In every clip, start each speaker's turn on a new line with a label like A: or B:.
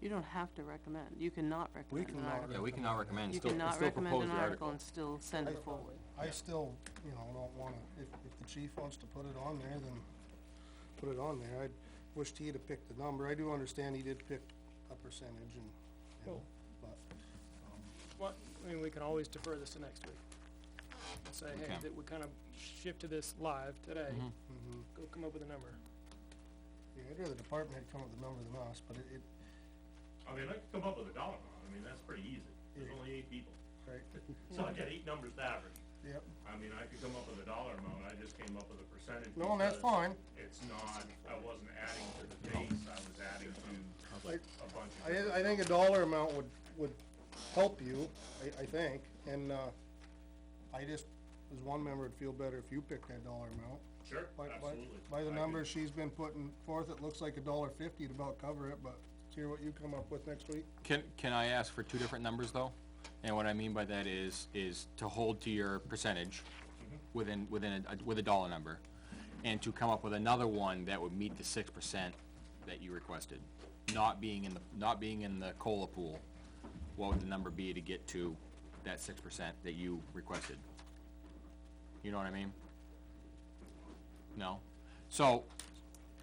A: You don't have to recommend, you cannot recommend an
B: cannot
A: article.
C: Yeah, we cannot recommend,
A: You
C: still, still
A: cannot
C: propose the
A: recommend an article
C: article.
A: and still send it forward.
B: I still, you know, don't wanna, if, if the chief wants to put it on there, then put it on there. I wished he'd have picked the number. I do understand he did pick a percentage and, you know, but,
D: Well, I mean, we can always defer this to next week. And Say, hey,
C: Okay.
D: that we kind of shift to this live today,
C: Mhm.
B: mhm.
D: go come up with a number.
B: Yeah, I'd rather the department had come up with the number than us, but it, it,
E: I mean, I could come up with a dollar amount, I mean, that's pretty easy, there's
B: Yeah.
E: only eight people,
B: right,
E: so I get eight numbers to average.
B: yep.
E: I mean, I could come up with a dollar amount, I just came up with a percentage.
B: No, and that's
E: because
B: fine.
E: It's not, I wasn't adding to the base, I was adding to
B: Like,
E: a bunch of. different-
B: I, I think a dollar amount would, would help you, I, I think, and, uh, I just, as one member, would feel better if you picked that dollar amount.
E: Sure,
B: By, by,
E: absolutely.
B: by the
E: I could-
B: numbers she's been putting forth, it looks like a dollar fifty to about cover it, but let's hear what you come up with next week.
C: Can, can I ask for two different numbers, though? And what I mean by that is, is to hold to your percentage within, within, a- with a dollar number, and to come up with another one that would meet the six percent that you requested, not being in the, not being in the COLA pool. What would the number be to get to that six percent that you requested? You know what I mean? No? So,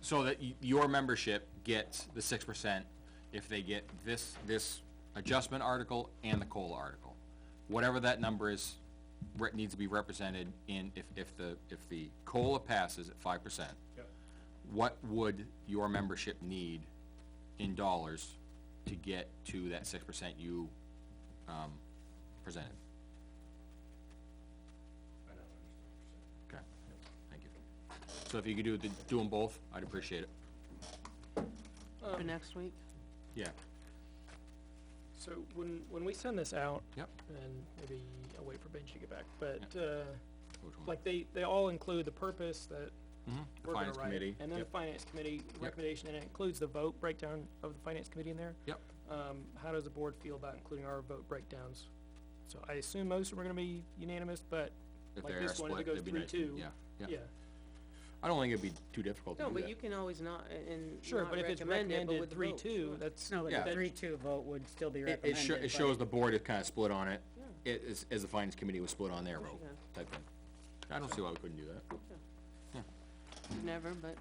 C: so that y- your membership gets the six percent if they get this, this adjustment article and the COLA article. Whatever that number is, re- needs to be represented in, if, if the, if the COLA passes at five percent,
E: Yep.
C: what would your membership need in dollars to get to that six percent you, um, presented?
E: I know, I understand
C: Okay, thank you. So if you could do, the- do them both, I'd appreciate it.
A: For next week,
C: Yeah,
D: So when, when we send this out,
C: yep.
D: and maybe I'll wait for Benji to get back, but, uh,
C: Which one?
D: like, they, they all include the purpose that
C: Mhm, The
D: we're gonna
C: finance
D: write,
C: committee,
D: and then the
C: yep,
D: finance committee recommendation, and it includes the vote breakdown of the finance committee in there.
C: yep,
D: Um, how does the board feel about including our vote breakdowns? So I assume most of them are gonna be unanimous, but,
C: if
D: like
C: they're
D: this one, if it
C: split,
D: goes
C: that'd be
D: three,
C: nice,
D: two,
C: yeah,
D: yeah.
C: yeah. I don't think it'd be too difficult to
A: no,
C: do
A: but
C: that.
A: you can always not, a- and
D: Sure,
A: not
D: but if it's
A: recommend it, but
D: recommended
A: with the
D: three,
A: vote,
D: two,
A: sure.
D: that's,
F: No,
C: Yeah.
F: but the three-two vote would still be
C: It, it
F: recommended.
C: sho- it
F: but-
C: shows the board is kinda split on it, it, as, as the finance committee was split on their vote,
A: Yeah.
C: type thing. I don't see why we couldn't do that,
A: Never, but,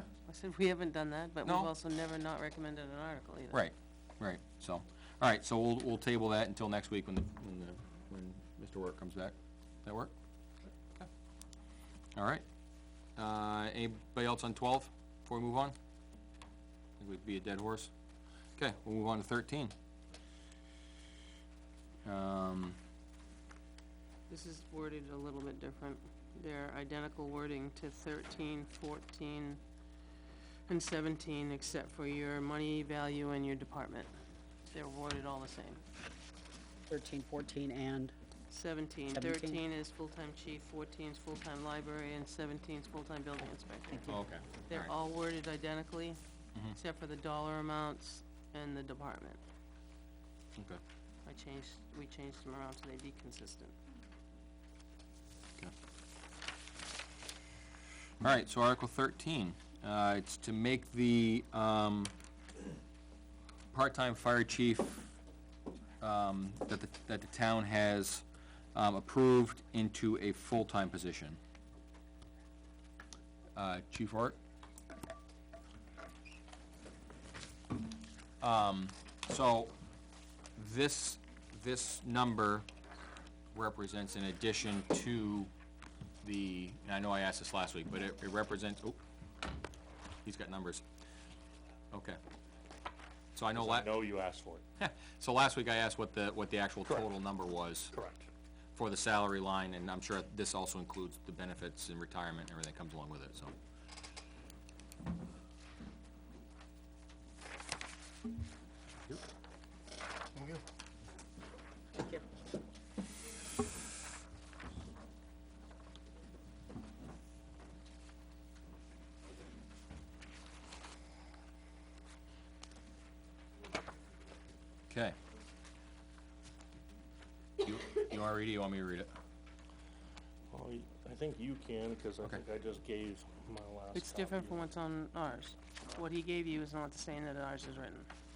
A: I said, we haven't done that, but we've
C: No.
A: also never not recommended an article either.
C: Right, right, so, alright, so we'll, we'll table that until next week when the, when the, when Mr. Work comes back. That work? Alright, uh, anybody else on twelve, before we move on? I think we'd be a dead horse. Okay, we'll move on to thirteen. Um,
A: This is worded a little bit different. They're identical wording to 13, 14, and seventeen, except for your money value and your department. They're worded all the same.
F: Thirteen, fourteen, and,
A: 17. 13
F: 17.
A: is full-time chief, fourteen is full-time library, and seventeen is full-time building inspector.
C: oh, okay,
A: They're
C: alright,
A: all worded identically, except for the dollar amounts and the department.
C: okay,
A: I changed, we changed them around so they'd be consistent.
C: okay. Alright, so Article thirteen, uh, it's to make the, um, part-time fire chief, um, that the, that the town has, um, approved into a full-time position. Uh, Chief Hart? Um, so, this, this number represents an addition to the, and I know I asked this last week, but it, it represents, oh, he's got numbers. Okay. So I know la-
E: know you asked for it.
C: so last week I asked what the, what the actual total number was
E: Correct.
C: for the salary line, and I'm sure this also includes the benefits and retirement and everything that comes along with it, so.
B: Thank you.
C: Okay. You, you wanna read it, you want me to read it?
E: Well, I think you can, cause I think I just gave my last.
A: It's different from what's on ours. What he gave you is not the same that ours is written.